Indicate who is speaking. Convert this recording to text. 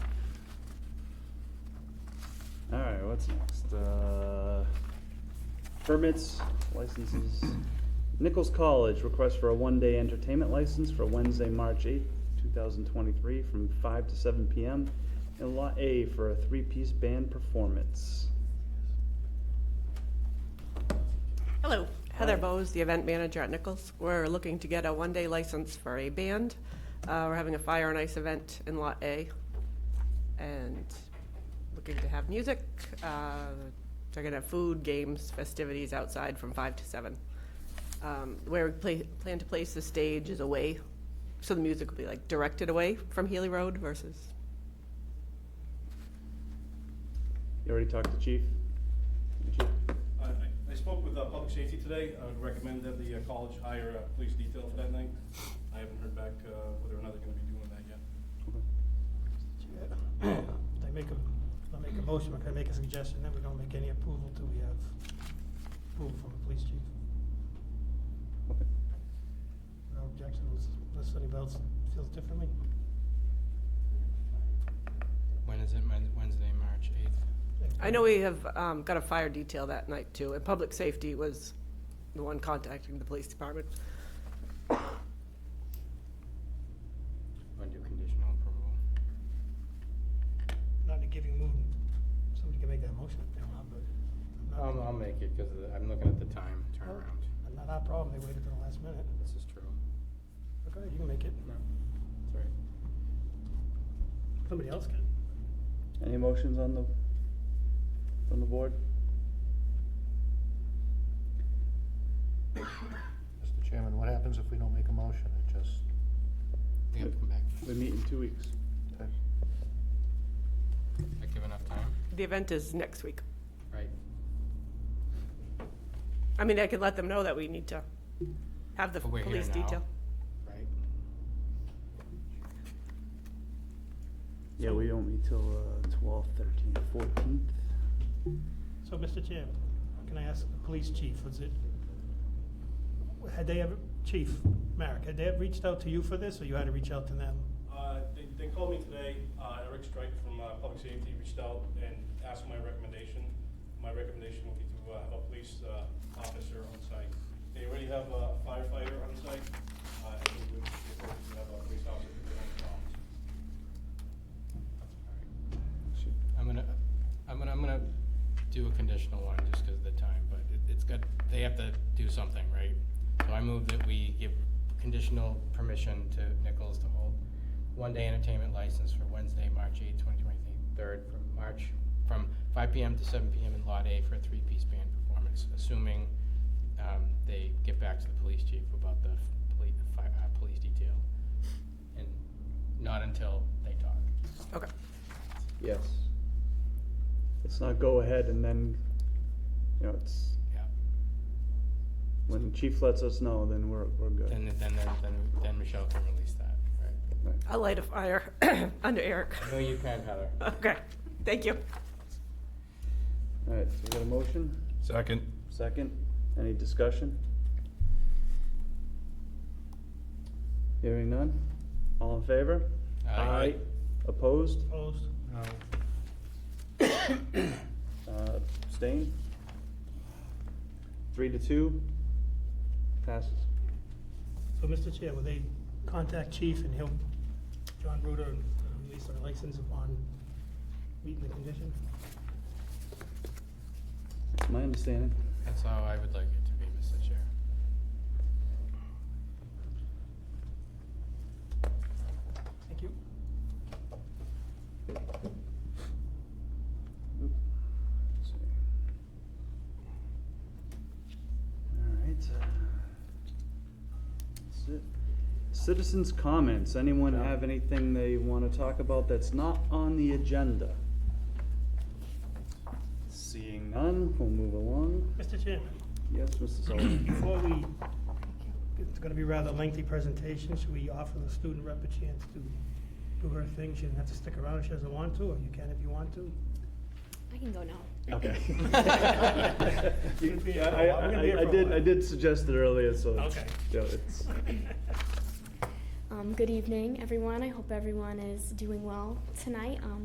Speaker 1: what's next? Uh, Permits, licenses. Nichols College, request for a one-day entertainment license for Wednesday, March eighth, two thousand twenty-three, from five to seven PM. And Lot A for a three-piece band performance.
Speaker 2: Hello, Heather
Speaker 1: Hi.
Speaker 2: Bowes, the event manager at Nichols. We're looking to get a one-day license for a band. Uh, We're having a fire and ice event in Lot A, and looking to have music. Uh, They're gonna have food, games, festivities outside from five to seven. Um, Where we pla- plan to place the stage is away, so the music will be like directed away from Healy Road versus
Speaker 1: You already talked to Chief? Chief?
Speaker 3: I- I I spoke with uh, Public Safety today. I would recommend that the uh, college hire a police detail for that night. I haven't heard back uh, whether or not they're going to be doing that yet.
Speaker 4: I make a, I make a motion, I make a suggestion that we don't make any approval till we have approval from the police chief.
Speaker 1: Okay.
Speaker 4: No objection, unless- unless anybody else feels differently.
Speaker 5: When is it? Mon- Wednesday, March 8th.
Speaker 2: I know we have um, got a fire detail that night too, and public safety was the one contacting the police department.
Speaker 5: Want to do conditional approval?
Speaker 4: Not in a giving mood, somebody can make that motion if they want, but. I'm
Speaker 5: I'll,
Speaker 4: not-
Speaker 5: I'll make it because I'm looking at the time turnaround.
Speaker 4: Not our problem, they waited till the last minute.
Speaker 5: This is true.
Speaker 4: Okay, you can make it,
Speaker 5: No, sorry.
Speaker 4: somebody else can.
Speaker 1: Any motions on the, on the board?
Speaker 6: Mr. Chairman, what happens if we don't make a motion? It just,
Speaker 5: They have to come back.
Speaker 1: We meet in two weeks.
Speaker 5: Does that give enough time?
Speaker 2: The event is next week.
Speaker 5: Right.
Speaker 2: I mean, I could let them know that we need to have the
Speaker 5: But Oh, we're here
Speaker 2: police
Speaker 5: now.
Speaker 2: detail.
Speaker 5: Right.
Speaker 1: Yeah, we don't meet till, uh, twelve, thirteen, fourteenth.
Speaker 4: So, Mr. Chair, can I ask the police chief, was it, had they ever, Chief Merrick, had they ever reached out to you for this, or you had to reach out to them?
Speaker 3: Uh, They they called me today. Uh, Eric Strike from uh, Public Safety reached out and asked my recommendation. My recommendation would be to uh, have a police uh, officer on site. They already have a firefighter on site. Uh, I think we would be appropriate to have a police officer if they have problems.
Speaker 5: Should- I'm gonna, I'm gonna, I'm gonna do a conditional one just because of the time, but it, it's got, they have to do something, right? So I move that we give conditional permission to Nichols to hold one-day entertainment license for Wednesday, March eighth, twenty twenty-third, from March, from five PM to seven PM in Lot A for a three-piece band performance, assuming, um, they get back to the police chief about the police, fire, uh, police detail. And not until they talk.
Speaker 2: Okay.
Speaker 1: Yes. Let's not go ahead and then, you know, it's,
Speaker 5: Yeah.
Speaker 1: when chief lets us know, then we're, we're good.
Speaker 5: Then, then, then, then, then Michelle can release that, right?
Speaker 1: Right.
Speaker 2: I'll light a fire under Eric.
Speaker 5: No, you can, Heather.
Speaker 2: Okay, thank you.
Speaker 1: All right, so we got a motion,
Speaker 3: Second.
Speaker 1: second, any discussion? Hearing none, all in favor?
Speaker 5: Aye.
Speaker 1: Opposed,
Speaker 4: Opposed?
Speaker 6: no,
Speaker 1: uh, abstained? Three to two, passes.
Speaker 4: So, Mr. Chair, will they contact Chief and he'll, John Ruder, and release our license upon meeting the condition?
Speaker 1: That's my understanding.
Speaker 5: That's how I would like it to be, Mr. Chair.
Speaker 4: Thank you.
Speaker 1: Oop. Let's see. All right. uh, That's it. Citizens' comments. Anyone
Speaker 5: Yeah.
Speaker 1: have anything they want to talk about that's not on the agenda? Seeing none, we'll move along.
Speaker 4: Mr. Chairman,
Speaker 1: Yes, Mr. Sullivan.
Speaker 4: before we, it's gonna be a rather lengthy presentation, should we offer the student rep a chance to do her thing? She doesn't have to stick around if she doesn't want to, or you can if you want to.
Speaker 7: I can go now.
Speaker 1: Okay.
Speaker 4: Gonna be-
Speaker 1: I, I,
Speaker 4: I'm gonna be here
Speaker 1: I- I
Speaker 4: for a
Speaker 1: did,
Speaker 4: while.
Speaker 1: I did suggest it earlier, so. it's-
Speaker 4: Okay.
Speaker 1: Yeah, it's,
Speaker 7: Um, good evening, everyone. I hope everyone is doing well tonight. Um,